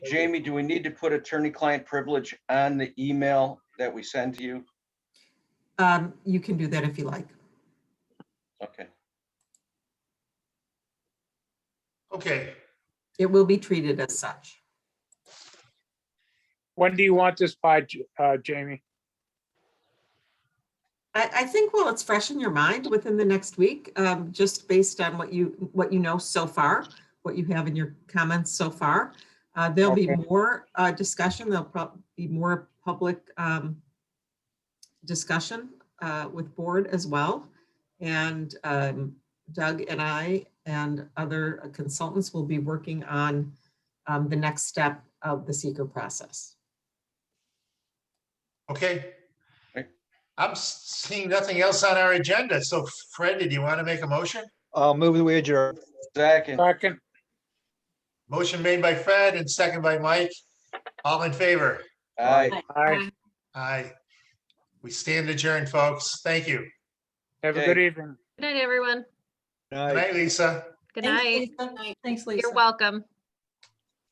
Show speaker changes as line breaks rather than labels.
Jamie, do we need to put attorney-client privilege on the email that we send to you?
Um, you can do that if you like.
Okay,
Okay,
It will be treated as such.
When do you want this by, J- uh, Jamie?
I, I think while it's fresh in your mind within the next week, um, just based on what you, what you know so far, what you have in your comments so far, uh, there'll be more, uh, discussion, there'll prob, be more public, um, discussion, uh, with board as well. And, um, Doug and I and other consultants will be working on, um, the next step of the seeker process.
okay.
Okay.
I'm s- seeing nothing else on our agenda. So Fred, did you want to make a motion?
I'll move the wager.
second,
Second,
Motion made by Fred and second by Mike. All in favor?
aye,
aye.
Aye. We stand adjourned, folks. Thank you.
Have a good evening.
Good night, everyone.
Good night, Lisa.
Good
Thanks,
night.
Lisa. Thanks, Lisa.
You're welcome.